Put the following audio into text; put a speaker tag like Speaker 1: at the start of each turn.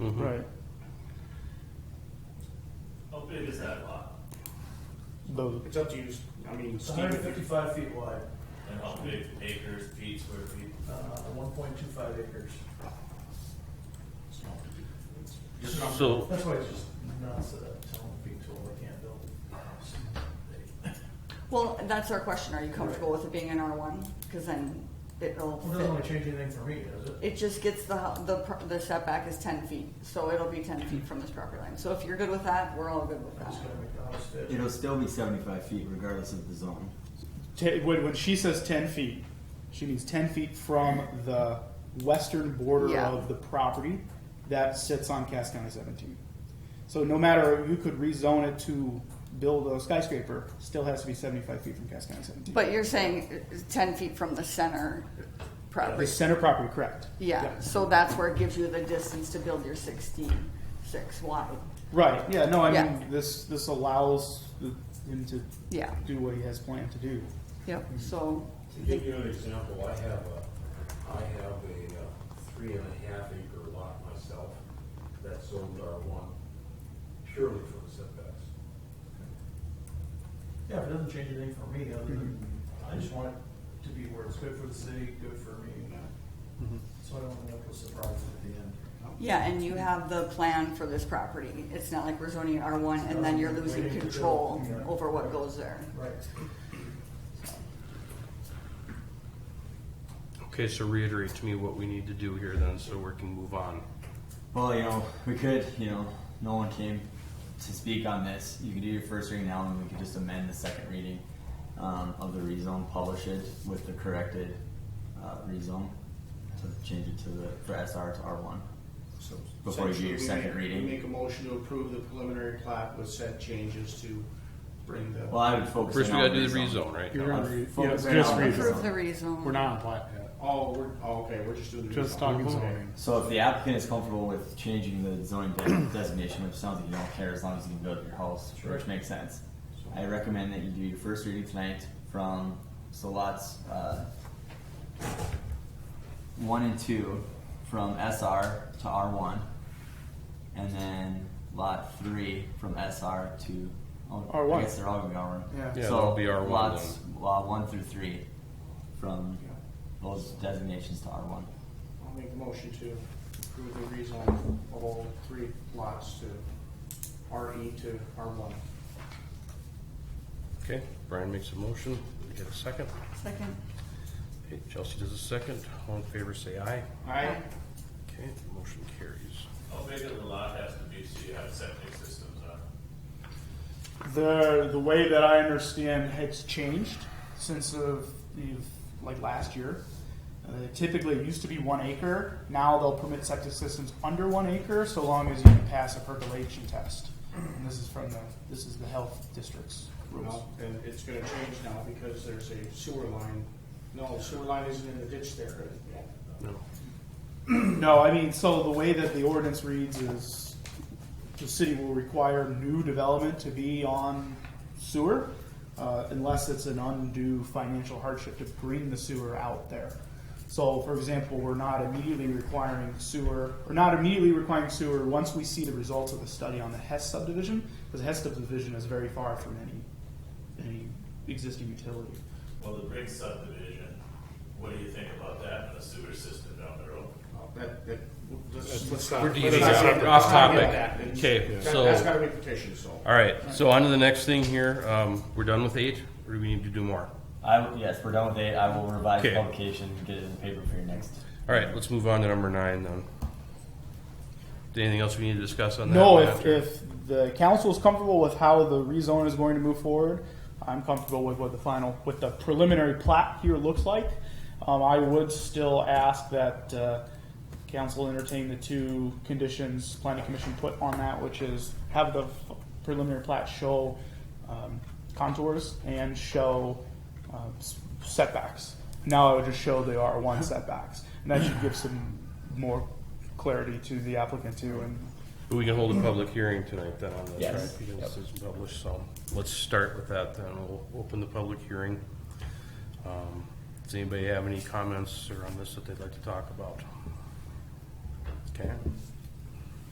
Speaker 1: Mm-hmm.
Speaker 2: Right.
Speaker 3: How big is that lot?
Speaker 2: Both.
Speaker 4: It's up to you, I mean,
Speaker 5: It's
Speaker 4: Steve,
Speaker 5: hundred and
Speaker 4: if you-
Speaker 5: fifty-five feet wide,
Speaker 3: And how big acres, feet, square feet?
Speaker 5: uh, one point two five acres.
Speaker 4: just not-
Speaker 1: So,
Speaker 5: That's why it's just nuts that I'm telling people they can't build a house.
Speaker 6: Well, that's our question. Are you comfortable with it being an R one? Because then
Speaker 5: Well,
Speaker 6: it'll
Speaker 5: It doesn't really
Speaker 6: fit.
Speaker 5: change anything for me, does it?
Speaker 6: It just gets the, hu- the, pro- the setback is ten feet, so it'll be ten feet from this property line. So if you're good with that, we're all good with
Speaker 5: I
Speaker 6: that.
Speaker 5: just gotta make the house fit.
Speaker 7: It'll still be 75 feet regardless of the zone.
Speaker 2: Te- when, when she says 10 feet, she means 10 feet from the western border
Speaker 6: Yeah.
Speaker 2: of the property that sits on Cass County 17. So no matter, you could rezone it to build a skyscraper, still has to be 75 feet from Cass County 17.
Speaker 6: But you're saying uh, ten feet from the center
Speaker 2: the
Speaker 6: property?
Speaker 2: center property, correct.
Speaker 6: Yeah, so that's where it gives you the distance to build your sixty-six wide.
Speaker 2: Right, yeah, no, I
Speaker 6: Yeah.
Speaker 2: mean, this, this allows the- him to
Speaker 6: Yeah, Mm-hmm.
Speaker 2: do what he has planned to do.
Speaker 6: yep, so,
Speaker 8: To give you an example, I have a, I have a uh, three and a half acre lot myself that's zoned R one purely for the setbacks.
Speaker 5: Yeah, it doesn't change anything for me, other than, I just want it to be where it's good for the city, good for me. So I don't end up with surprises at the end.
Speaker 6: yeah, and you have the plan for this property. It's not like we're zoning it R one and then you're losing control over what goes there.
Speaker 5: Right.
Speaker 1: okay, so reiterate to me what we need to do here then, so we can move on.
Speaker 7: Well, you know, we could, you know, no one came to speak on this. You could do your first reading now, and we could just amend the second reading um, of the rezone, publish it with the corrected uh, rezone to change it to the for SR to R1.
Speaker 4: so
Speaker 7: Before you do
Speaker 4: essentially,
Speaker 7: your
Speaker 4: we
Speaker 7: second
Speaker 4: make-
Speaker 7: reading.
Speaker 4: We make a motion to approve the preliminary plat with set changes to bring the.
Speaker 7: Well, I would focus.
Speaker 1: First,
Speaker 7: in
Speaker 1: we gotta
Speaker 7: on
Speaker 1: do the rezone, right?
Speaker 2: You're
Speaker 7: I'd
Speaker 2: gonna re-
Speaker 7: focus
Speaker 2: yeah,
Speaker 7: in
Speaker 2: just
Speaker 7: on
Speaker 2: rezone.
Speaker 6: Approve the rezone.
Speaker 2: We're not on plat,
Speaker 4: Oh, we're, oh, okay, we're just doing the.
Speaker 2: just
Speaker 4: rezone.
Speaker 2: talking
Speaker 4: Okay.
Speaker 2: zoning.
Speaker 7: So if the applicant is comfortable with changing the zoning de- designation, which sounds like you don't care as long as you can build your house, which makes sense. I recommend that you do your first reading tonight from, so lots, uh, one and two, from SR to R one. And then lot three from SR to, oh,
Speaker 2: R1.
Speaker 7: I guess they're all gonna be R one.
Speaker 2: Yeah.
Speaker 1: Yeah,
Speaker 7: So
Speaker 1: that'll be R1
Speaker 7: Lots, lot one through three, from those designations to R one.
Speaker 4: I'll make a motion to approve the rezone of all three lots to RE to R one.
Speaker 1: Okay, Brian makes a motion, we get a second.
Speaker 6: Second.
Speaker 1: Okay, Chelsea does a second, all in favor say aye.
Speaker 6: Aye.
Speaker 1: Okay, motion carries.
Speaker 3: How big of the lot has to be so you have septic systems on it?
Speaker 2: The the way that I understand it's changed since of the like last year. Uh, typically, it used to be one acre. Now they'll permit septic systems under one acre, so long as you can pass a percolation test. And this is from the this is the health district's rules.
Speaker 4: Well, And it's gonna change now because there's a sewer line. No, the sewer line isn't in the ditch there.
Speaker 1: No.
Speaker 2: No, I mean, so the way that the ordinance reads is the city will require new development to be on sewer uh, unless it's an undue financial hardship to bring the sewer out there. So, for example, we're not immediately requiring sewer, or not immediately requiring sewer once we see the results of the study on the Hess subdivision, because the Hess subdivision is very far from any, any existing utility.
Speaker 3: Well, the big subdivision, what do you think about that and the sewer system down the road?
Speaker 4: That, that, let's, let's
Speaker 1: We're
Speaker 4: not.
Speaker 1: deviating
Speaker 4: let's not
Speaker 1: off-
Speaker 4: get-
Speaker 1: off
Speaker 4: let's not get
Speaker 1: topic.
Speaker 4: that. It's-
Speaker 1: Okay,
Speaker 4: that-
Speaker 1: so-
Speaker 4: That's gotta be petitioned, so.
Speaker 1: All right, so on to the next thing here, um, we're done with eight, or do we need to do more?
Speaker 7: I, yes, we're done with eight. I will revise the
Speaker 1: Okay.
Speaker 7: publication and get it in the paper for your next.
Speaker 1: All right, let's move on to number nine then. Anything else we need to discuss on that?
Speaker 2: No,
Speaker 1: one
Speaker 2: if,
Speaker 1: after?
Speaker 2: if the council is comfortable with how the rezone is going to move forward, I'm comfortable with what the final, with the preliminary plat here looks like. Um, I would still ask that, uh, council entertain the two conditions planning commission put on that, which is have the preliminary plat show, um, contours and show, um, s- setbacks. Now I would just show the R one setbacks, and that should give some more clarity to the applicant too, and
Speaker 1: We can hold a public hearing tonight then on this,
Speaker 7: Yes.
Speaker 1: right? Because
Speaker 7: Yep.
Speaker 1: it's published, so let's start with that then. We'll open the public hearing. Um, Does anybody have any comments or on this that they'd like to talk about? Okay,